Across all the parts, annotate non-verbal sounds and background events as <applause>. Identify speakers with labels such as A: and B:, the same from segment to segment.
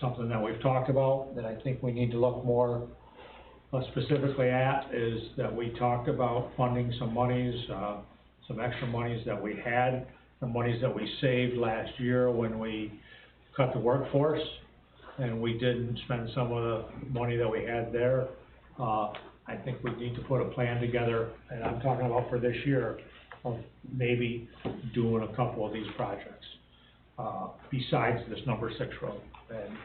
A: something that we've talked about, that I think we need to look more uh, specifically at, is that we talked about funding some monies, uh, some extra monies that we had, the monies that we saved last year when we cut the workforce, and we didn't spend some of the money that we had there. Uh, I think we need to put a plan together, and I'm talking about for this year, of maybe doing a couple of these projects, uh, besides this number six road. And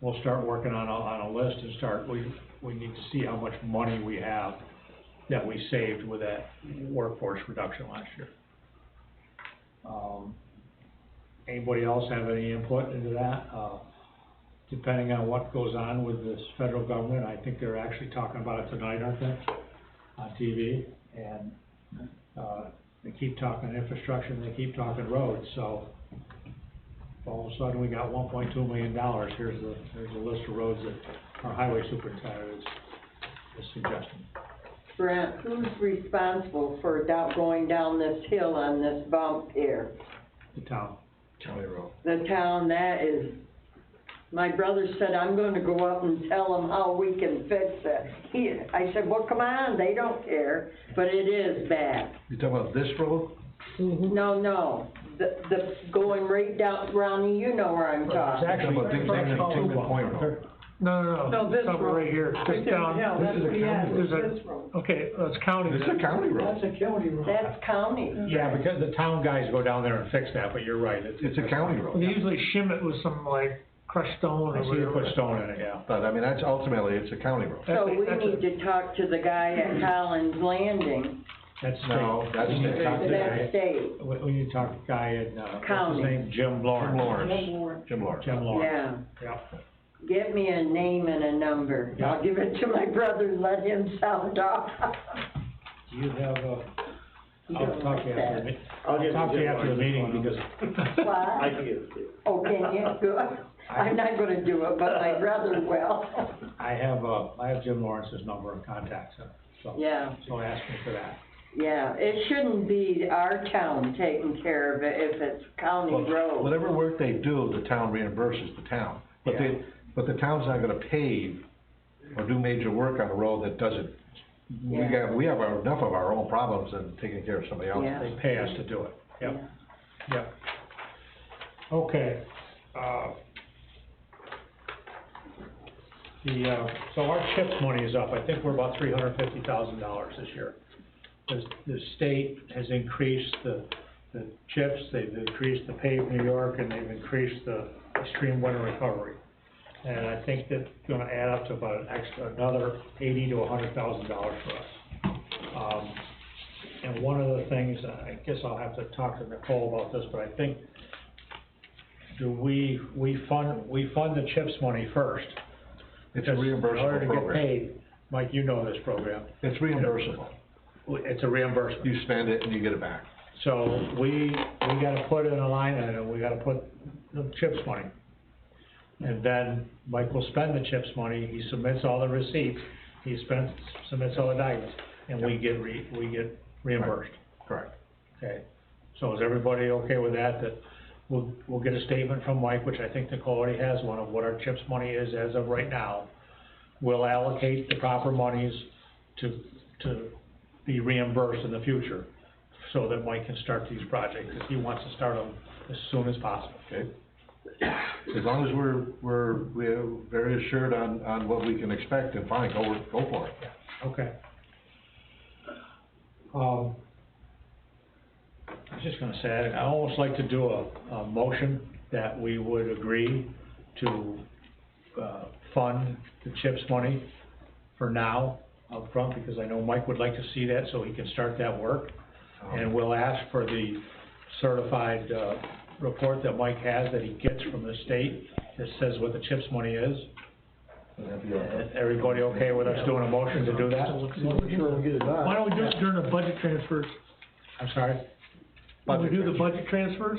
A: we'll start working on a, on a list and start, we, we need to see how much money we have that we saved with that workforce reduction last year. Um, Anybody else have any input into that? Uh, Depending on what goes on with this federal government, I think they're actually talking about it tonight, aren't they? On TV, and, uh, they keep talking infrastructure and they keep talking roads, so all of a sudden, we got one point two million dollars, here's the, here's a list of roads that our highway superintendent is, is suggesting.
B: Brent, who's responsible for down, going down this hill on this bump here?
A: The town,
C: County road.
B: The town that is, my brother said, I'm gonna go up and tell them how we can fix it. He, I said, well, come on, they don't care, but it is bad.
C: You talking about this road?
B: No, no, the, the, going right down, Ronnie, you know where I'm
A: It's
B: talking.
A: actually.
C: Talking about Dick Nixon, Tinker Point Road.
D: No, no, no.
E: No, this
D: Something
E: road.
D: Right here, just down,
E: Yeah,
C: This
E: that's,
C: is a
E: yeah,
C: county
D: road.
E: this road.
D: okay, that's county.
C: This is a county road.
E: That's a county road.
B: That's county.
A: Yeah, because the town guys go down there and fix that, but you're right, it's.
C: It's a county
D: They
C: road.
D: usually shim it with some like crushed stone
A: I
D: or
A: see you put
D: whatever.
A: stone in it, yeah.
C: But I mean, that's ultimately, it's a county road.
B: So
D: That's a-
B: we
D: that's a-
B: need to talk to the guy at Collins Landing,
A: That's state.
C: No, that's
A: We need to
C: state.
A: talk to the
B: that
A: guy-
B: state,
A: We, we need to talk to the guy in, uh, what's
B: County.
A: his name, Jim
C: Jim
A: Lawrence.
C: Lawrence, Jim Lawrence.
A: Jim Lawrence,
B: yeah.
A: yep.
B: Get me a name and a number. I'll give it to my brother, and let him sound off. <laughs>
A: Do you have a,
B: You
A: I'll
B: don't
A: talk to
B: like
A: you after the,
B: that.
A: meet-
F: I'll
A: I'll
F: get
A: talk to you after the meeting because
F: I
B: What?
F: can get it to you.
B: Oh, can
A: <laughs>
B: you? Good. I'm not gonna do it, but my brother will. <laughs>
A: I have, uh, I have Jim Lawrence's number and contacts, so- so.
B: Yeah.
A: So ask me for that.
B: Yeah, it shouldn't be our town taking care of it if it's county
C: Well,
B: road.
C: Whatever work they do, the town reimburses the town. But
A: Yeah.
C: they, but the town's not gonna pave or do major work on a road that doesn't, we
B: Yeah.
C: have, we have our- enough of our own problems than taking care of somebody
B: Yeah.
C: else's.
A: They pay us to do it, yep, yep. Okay, uh, the, uh, so our CHIPS money is up, I think we're about three hundred fifty thousand dollars this year. The, the state has increased the, the CHIPS, they've increased the Pave New York, and they've increased the extreme winter recovery. And I think that's gonna add up to about an extra, another eighty to a hundred thousand dollars for us. Um, and one of the things, I guess I'll have to talk to Nicole about this, but I think, do we, we fund, we fund the CHIPS money first?
C: It's a
A: because In order
C: reimbursable
A: to get
C: program.
A: paid, Mike, you know this program,
C: It's reimbursable.
A: it's a reimbursement.
C: You spend it and you get it back.
A: So we, we gotta put in a line item, we gotta put the CHIPS money. And then Mike will spend the CHIPS money, he submits all the receipts, he spends, submits all the documents, and we get re, we get reimbursed.
C: Correct.
A: Okay, so is everybody okay with that, that we'll, we'll get a statement from Mike, which I think Nicole already has one, of what our CHIPS money is as of right now. We'll allocate the proper monies to, to be reimbursed in the future, so that Mike can start these projects, because he wants to start them as soon as possible.
C: Okay? As long as we're, we're, we're very assured on, on what we can expect, then fine, go, go for it.
A: Okay. Um, I was just gonna say, I- I almost like to do a, a motion that we would agree to, uh, fund the CHIPS money for now up front because I know Mike would like to see that, so he can start that work. And we'll ask for the certified, uh, report that Mike has, that he gets from the state, that says what the CHIPS money is.
C: Would that be all right?
A: Everybody okay with us doing a motion to do that?
D: Why don't we do it during the budget transfers?
A: I'm sorry?
D: When we
C: Budget
D: do the
C: transfer.
D: budget transfers,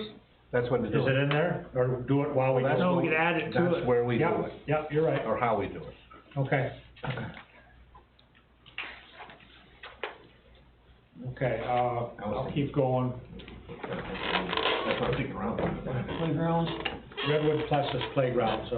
C: That's what they
A: Is
C: do.
A: it in there, or do it while we
C: Well, that's
A: go?
D: no, we
C: what-
D: can add it to
C: That's
D: it.
C: where we do
A: Yep,
C: it,
A: yep, you're right,
C: or how we do it.
A: okay. Okay, uh, I'll keep going,
C: That's what I'm thinking around.
A: Redwood Plessis Playgrounds,